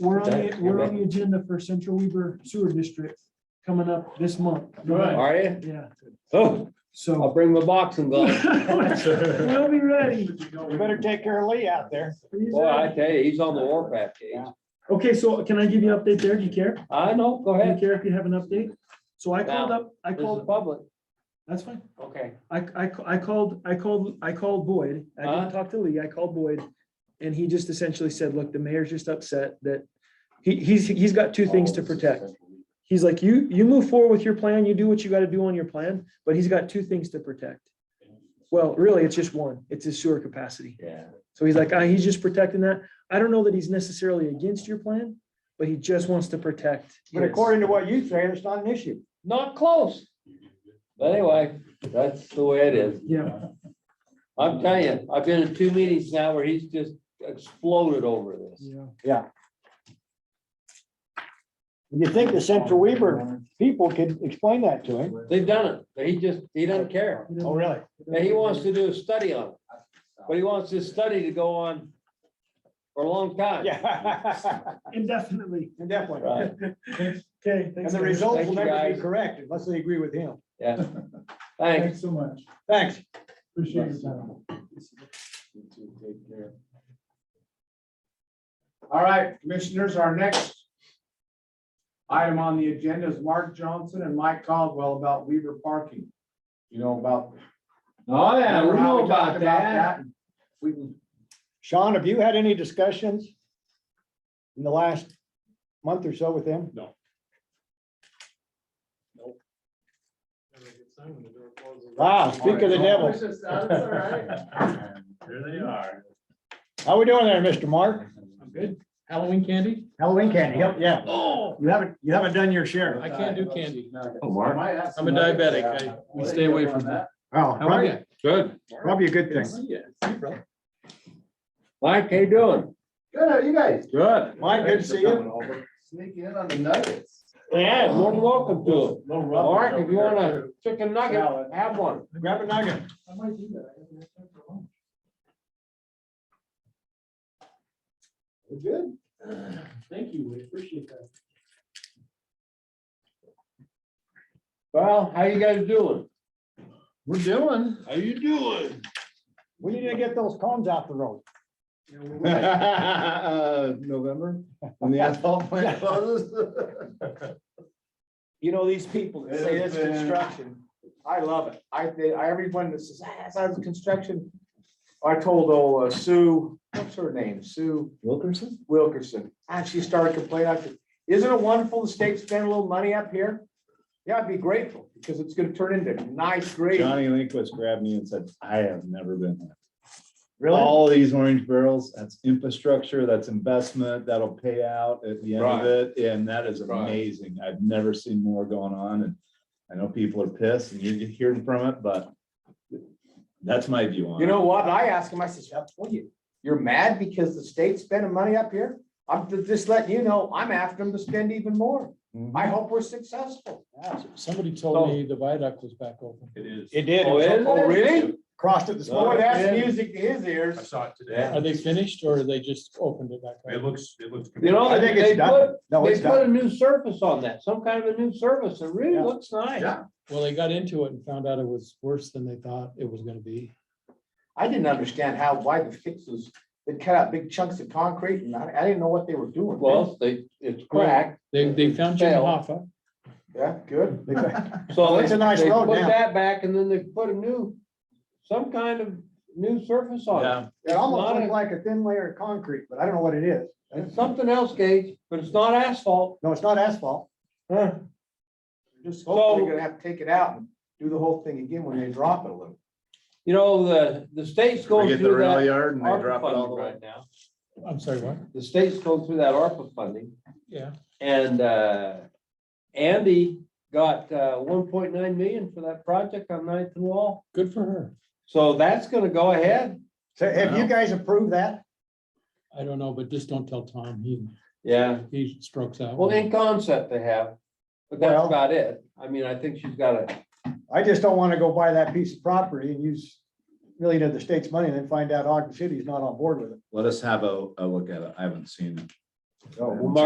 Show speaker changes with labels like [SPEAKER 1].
[SPEAKER 1] We're on the,
[SPEAKER 2] Okay.
[SPEAKER 1] we're on the agenda for Central Weaver Sewer District coming up this month.
[SPEAKER 3] Right.
[SPEAKER 2] Are you?
[SPEAKER 1] Yeah,
[SPEAKER 2] Oh, I'll
[SPEAKER 1] so.
[SPEAKER 2] bring my boxing gloves.
[SPEAKER 1] We'll be ready.
[SPEAKER 4] You better take care of Lee out there.
[SPEAKER 2] Boy, I tell you, he's on the warpath, Gage.
[SPEAKER 1] Okay, so can I give you an update there? Do you care? Do
[SPEAKER 2] I know, go
[SPEAKER 1] you
[SPEAKER 2] ahead.
[SPEAKER 1] care if you have an update? So I called up, I
[SPEAKER 2] This is
[SPEAKER 1] called,
[SPEAKER 2] public.
[SPEAKER 1] that's fine.
[SPEAKER 2] Okay.
[SPEAKER 1] I, I, ca- I called, I called, I called Boyd. I
[SPEAKER 2] Huh?
[SPEAKER 1] didn't talk to Lee. I called Boyd. And he just essentially said, look, the mayor's just upset that he, he's, he's got two things to protect. He's like, you, you move forward with your plan, you do what you gotta do on your plan, but he's got two things to protect. Well, really, it's just one. It's his sewer capacity.
[SPEAKER 2] Yeah.
[SPEAKER 1] So he's like, ah, he's just protecting that. I don't know that he's necessarily against your plan, but he just wants to protect.
[SPEAKER 4] But
[SPEAKER 1] his.
[SPEAKER 4] according to what you say, it's not an issue.
[SPEAKER 2] Not close. But anyway, that's the way it is.
[SPEAKER 1] Yeah,
[SPEAKER 2] I'm telling you, I've been in two meetings now where he's just exploded over this.
[SPEAKER 1] yeah.
[SPEAKER 4] You think the Central Weaver people could explain that to him?
[SPEAKER 2] They've done it. but He just, he doesn't care.
[SPEAKER 4] Oh, really?
[SPEAKER 2] And he wants to do a study on it. But he wants this study to go on for a long time.
[SPEAKER 4] Yeah.
[SPEAKER 1] Indefinitely.
[SPEAKER 4] Definitely.
[SPEAKER 2] Right,
[SPEAKER 1] Okay.
[SPEAKER 4] And
[SPEAKER 1] thanks, guys.
[SPEAKER 4] the results
[SPEAKER 2] Thank
[SPEAKER 4] will
[SPEAKER 2] you,
[SPEAKER 4] never be
[SPEAKER 2] guys.
[SPEAKER 4] correct unless they agree with him.
[SPEAKER 2] yeah. Thanks.
[SPEAKER 3] so much.
[SPEAKER 4] Thanks.
[SPEAKER 3] Appreciate your time. All right, commissioners, our next item on the agenda is Mark Johnson and Mike Caldwell about Weaver parking. You know about.
[SPEAKER 2] Oh, yeah, we
[SPEAKER 3] Remember how
[SPEAKER 2] know
[SPEAKER 3] talked
[SPEAKER 2] about that.
[SPEAKER 3] We can
[SPEAKER 4] Sean, have you had any discussions in the last month or so with him? Wow, Ah, speak of the
[SPEAKER 3] Oh,
[SPEAKER 4] devil.
[SPEAKER 5] There they are.
[SPEAKER 4] How we doing there, Mr. Mark?
[SPEAKER 5] I'm good. Halloween candy?
[SPEAKER 4] Halloween candy, yep, yeah.
[SPEAKER 5] Oh,
[SPEAKER 4] You haven't, you haven't done your share.
[SPEAKER 5] I can't do candy.
[SPEAKER 2] Oh, Mark.
[SPEAKER 5] I'm a diabetic. I- we stay away from that.
[SPEAKER 4] Oh,
[SPEAKER 5] How are
[SPEAKER 4] probably,
[SPEAKER 5] you? Good.
[SPEAKER 4] probably a good thing.
[SPEAKER 2] Mike, how you doing?
[SPEAKER 3] Good, how are you guys?
[SPEAKER 2] Good.
[SPEAKER 4] Mike, good to see you.
[SPEAKER 3] Sneak in on the nuggets.
[SPEAKER 2] Yeah, more than welcome to it.
[SPEAKER 3] Little rough.
[SPEAKER 2] Mark, if you want a chicken nugget, have one.
[SPEAKER 4] Grab a nugget.
[SPEAKER 3] I might do that. I haven't had time for lunch. We're good.
[SPEAKER 1] Thank you, we appreciate that.
[SPEAKER 2] Well, how you guys doing?
[SPEAKER 5] We're doing.
[SPEAKER 2] How you doing?
[SPEAKER 4] We need to get those cones off the road.
[SPEAKER 5] Uh, November, when the asphalt plant closes.
[SPEAKER 4] You know, these people
[SPEAKER 3] that say it's construction,
[SPEAKER 4] I love it.
[SPEAKER 3] I, think- I, everyone that says, ah, sounds construction. I told old uh, Sue, what's her name? Sue
[SPEAKER 5] Wilkerson?
[SPEAKER 3] Wilkerson. And she started complaining. I said, isn't it wonderful the state spent a little money up here? Yeah, I'd be grateful because it's gonna turn into nice grading.
[SPEAKER 5] Johnny Lindquist grabbed me and said, I have never been there. All these orange barrels, that's infrastructure, that's investment, that'll pay out at the end of
[SPEAKER 2] Right.
[SPEAKER 5] it, and that is
[SPEAKER 2] Right.
[SPEAKER 5] amazing. I've never seen more going on, and I know people are pissed, and you're hearing from it, but that's my view on it.
[SPEAKER 3] You know what? And I asked him, I said, "Yeah, what you, you're mad because the state's spending money up here? I'm just letting you know, I'm after them to spend even more.
[SPEAKER 5] Mhm.
[SPEAKER 3] I hope we're successful.
[SPEAKER 6] Somebody told me the viaduct was back open.
[SPEAKER 5] It is.
[SPEAKER 4] It did.
[SPEAKER 2] Oh, is
[SPEAKER 3] Oh, really?
[SPEAKER 4] Crossed it this
[SPEAKER 3] Boy,
[SPEAKER 4] morning.
[SPEAKER 3] that's music to his ears.
[SPEAKER 7] I saw it today.
[SPEAKER 2] Yeah.
[SPEAKER 6] Are they finished or they just opened it back
[SPEAKER 7] It
[SPEAKER 6] up?
[SPEAKER 7] looks, it looks.
[SPEAKER 2] You know,
[SPEAKER 4] I
[SPEAKER 2] they
[SPEAKER 4] think
[SPEAKER 2] they
[SPEAKER 4] it's
[SPEAKER 2] put,
[SPEAKER 4] done. No,
[SPEAKER 2] they
[SPEAKER 4] it's
[SPEAKER 2] put
[SPEAKER 4] done.
[SPEAKER 2] a new surface on that, some kind of a new surface. It really
[SPEAKER 4] Yeah.
[SPEAKER 2] looks nice.
[SPEAKER 7] Yeah.
[SPEAKER 6] Well, they got into it and found out it was worse than they thought it was gonna be.
[SPEAKER 3] I didn't understand how, why the fixes, they cut out big chunks of concrete and I, I didn't know what they were doing.
[SPEAKER 2] Well, they, it's cracked,
[SPEAKER 6] They, they found Jim
[SPEAKER 2] Fail.
[SPEAKER 6] Hoffa.
[SPEAKER 3] Yeah, good.
[SPEAKER 2] so
[SPEAKER 4] It's a nice
[SPEAKER 2] they
[SPEAKER 4] road
[SPEAKER 2] put
[SPEAKER 4] now.
[SPEAKER 2] that back and then they put a new, some kind of new surface on
[SPEAKER 5] Yeah.
[SPEAKER 2] it.
[SPEAKER 4] It almost
[SPEAKER 2] Not
[SPEAKER 4] looked
[SPEAKER 2] a-
[SPEAKER 4] like a thin layer of concrete, but I don't know what it is.
[SPEAKER 2] It's something else, Gage, but it's not asphalt.
[SPEAKER 4] No, it's not asphalt.
[SPEAKER 3] Just hopefully
[SPEAKER 2] So-
[SPEAKER 3] they're gonna have to take it out and do the whole thing again when they drop it a little.
[SPEAKER 2] You know, the, the state's
[SPEAKER 5] We
[SPEAKER 2] going
[SPEAKER 5] get the
[SPEAKER 2] through
[SPEAKER 5] rail
[SPEAKER 2] that.
[SPEAKER 5] yard and they
[SPEAKER 2] ARPA
[SPEAKER 5] drop it all the
[SPEAKER 2] funding
[SPEAKER 5] way.
[SPEAKER 2] right now.
[SPEAKER 6] I'm sorry, what?
[SPEAKER 2] The state's going through that ARPA funding.
[SPEAKER 6] Yeah.
[SPEAKER 2] And uh, Andy got uh, one point nine million for that project on Ninth and Wall.
[SPEAKER 6] Good for her.
[SPEAKER 2] So that's gonna go ahead.
[SPEAKER 4] So have you guys approved that?
[SPEAKER 6] I don't know, but just don't tell Tom. He,
[SPEAKER 2] Yeah.
[SPEAKER 6] he strokes out.
[SPEAKER 2] Well, in concept they have, but that's
[SPEAKER 4] Well-
[SPEAKER 2] about it. I mean, I think she's got a,
[SPEAKER 4] I just don't want to go buy that piece of property and use million of the state's money and then find out Ogden City's not on board with it.
[SPEAKER 5] Let us have a, a look at it. I haven't seen it. Oh,
[SPEAKER 2] Well,